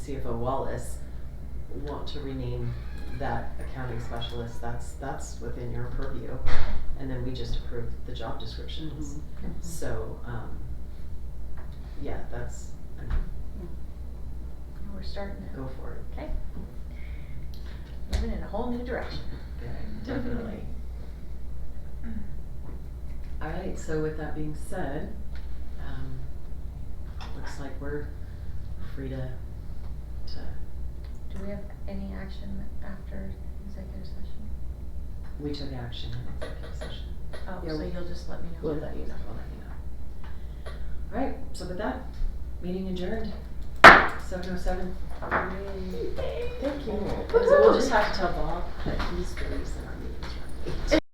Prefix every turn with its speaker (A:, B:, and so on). A: CFO Wallace want to rename that accounting specialist, that's, that's within your purview. And then we just approve the job descriptions. So, um, yeah, that's, I mean,
B: And We're starting it.
A: go for it.
B: Okay. Moving in a whole new direction.
A: Yeah, definitely. All right, so with that being said, um, looks like we're free to, to,
B: Do we have any action after executive session?
A: we took action in executive session.
B: Oh,
A: Yeah,
B: so
A: we-
B: you'll just let me know.
A: We'll let you know, we'll let you know. All right, so with that, meeting adjourned, seven oh seven. Thank you. So we'll just have to tell Bob that he's the reason our meeting's running.